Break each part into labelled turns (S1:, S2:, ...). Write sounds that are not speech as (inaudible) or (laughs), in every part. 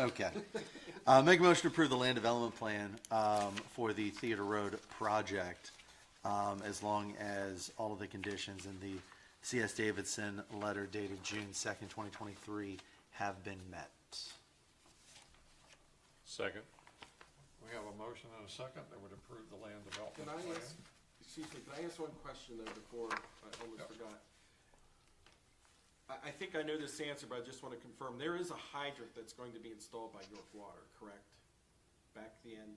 S1: Okay. Uh, make a motion to approve the land development plan, um, for the Theater Road project, um, as long as all of the conditions in the CS Davidson letter dated June second, twenty twenty-three have been met.
S2: Second.
S3: We have a motion and a second that would approve the land
S4: Can
S3: development
S4: I
S3: plan.
S4: ask, excuse me, can I ask one question though before, I almost forgot? I, I think I know this answer, but I just wanna confirm, there is a hydrant that's going to be installed by York Water, correct? Back the end?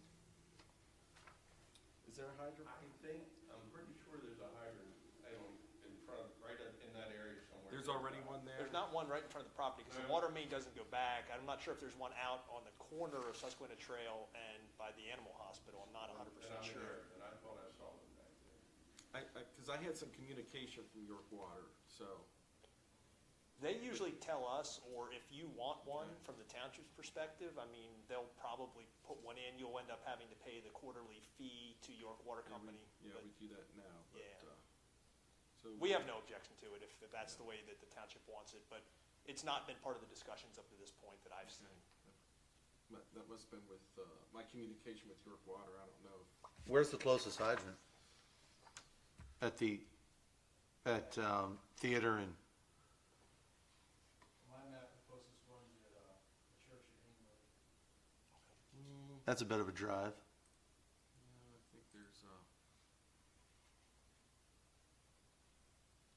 S4: Is there a hydrant?
S5: I think, I'm pretty sure there's a hydrant, I don't, in front, of- right up in that area somewhere.
S4: There's already one there?
S6: There's not one right in front of the property, because the water main doesn't go back. I'm not sure if there's one out on the corner of Susquehanna Trail and by the animal hospital. I'm not hundred
S5: And
S6: percent
S5: I'm
S6: sure.
S5: there, and I thought I saw one back there.
S4: I, I, cause I had some communication from York Water, so,
S6: They usually tell us, or if you want one from the township's perspective, I mean, they'll probably put one in. You'll end up having to pay the quarterly fee to York Water Company.
S4: yeah,
S6: but
S4: we do that now,
S6: Yeah.
S4: but, uh. so
S6: We have no objection to it if, if that's the way that the township wants it, but it's not been part of the discussions up to this point that I've seen.
S4: That, that must've been with, uh, my communication with York Water, I don't know if
S1: Where's the closest hydrant? At the, at, um, Theater and,
S7: My map, the closest one's at, uh, the church in England.
S1: that's a bit of a drive.
S4: Yeah, I think there's, uh, I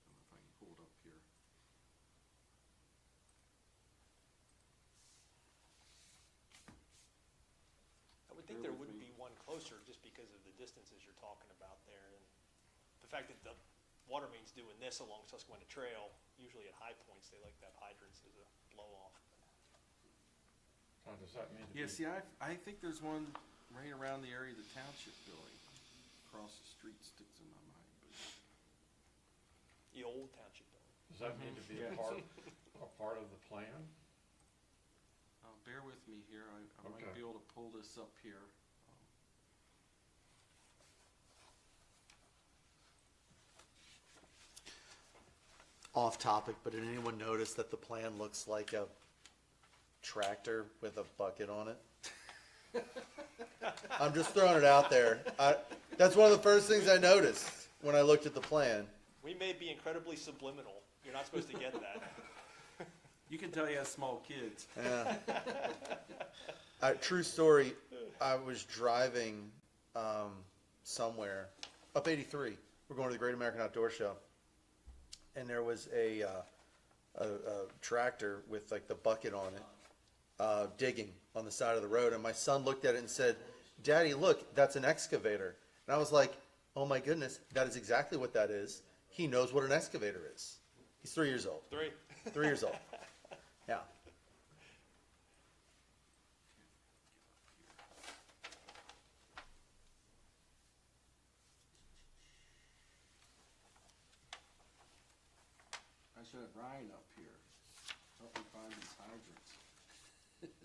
S4: don't know if I can pull it up here.
S6: I would think
S4: Bear
S6: there
S4: with
S6: would
S4: me.
S6: be one closer, just because of the distances you're talking about there, and the fact that the water main's doing this along Susquehanna Trail, usually at high points, they like to have hydrants as a blow-off.
S3: Now, does that need to be?
S4: Yeah, see, I, I think there's one right around the area of the township building. Across the street sticks in my mind, but
S6: The old township building.
S3: Does that need to be a part, a part of the plan?
S4: uh, bear with me here. I, I might
S3: Okay.
S4: be able to pull this up here.
S1: Off topic, but did anyone notice that the plan looks like a tractor with a bucket on it? I'm just throwing it out there. I, that's one of the first things I noticed when I looked at the plan.
S6: We may be incredibly subliminal, you're not supposed
S4: (laughs)
S6: to get that.
S4: You can tell you have small kids.
S1: Yeah. Uh, true story. I was driving um, somewhere up 83. We're going to the Great American Outdoor Show, and there was a, uh, a, a tractor with like the bucket on it uh, digging on the side of the road. And my son looked at it and said, "Daddy, look, that's an excavator." And I was like, "Oh my goodness, that is exactly what that is." He knows what an excavator is. He's three years old.
S6: Three,
S1: Three years old. Yeah.
S4: I should have Ryan up here. Help me find these hydrants. (laughs)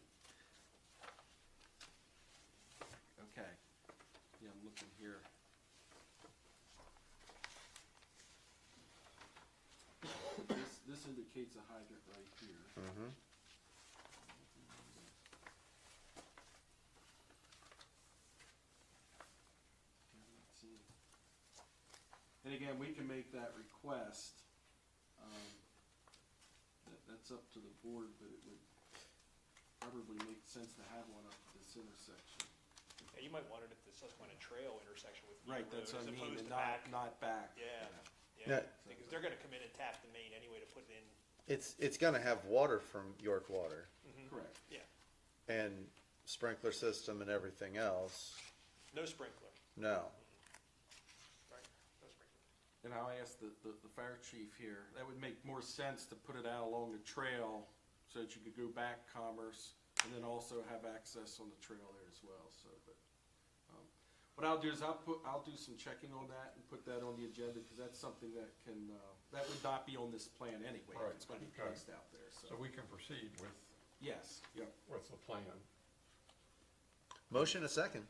S4: Okay. Yeah, I'm looking here. This, this indicates a hydrant right here.
S1: Mm-hmm.
S4: Yeah, let's see. And again, we can make that request. Um, that, that's up to the board, but it would probably make sense to have one up at this intersection.
S6: Yeah, you might want it at the Susquehanna Trail intersection with Lee
S4: Right,
S6: Road,
S4: that's
S6: as
S4: what I mean,
S6: opposed
S4: and
S6: to
S4: not,
S6: back.
S4: not back.
S6: Yeah,
S1: Yeah.
S6: yeah, because they're gonna come in and tap the main anyway to put it in,
S1: It's it's gonna have water from York Water
S6: Mm-hmm.
S4: Correct.
S6: yeah,
S1: and sprinkler system and everything else.
S6: no sprinkler,
S1: No.
S6: right, no sprinkler.
S4: And I'll ask the, the, the fire chief here, that would make more sense to put it out along the trail so that you could go back Commerce and then also have access on the trail there as well, so, but. um, What I'll do is I'll put, I'll do some checking on that and put that on the agenda, cause that's something that can, uh, that would not be on this plan anyway. if
S3: Right,
S4: It's gonna be
S3: okay.
S4: placed out there,
S3: So
S4: so,
S3: we can proceed with,
S4: yes, yep.
S3: with the plan.
S1: Motion a second.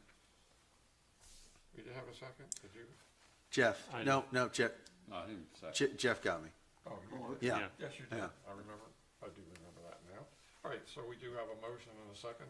S3: We did have a second, did you?
S1: Jeff.
S2: I
S1: No, no, Jeff.
S8: I didn't say.
S1: Je- Jeff got me.
S3: Oh, you did.
S1: Yeah.
S3: Yes, you did.
S1: Yeah.
S3: I remember, I do remember that now. All right, so we do have a motion and a second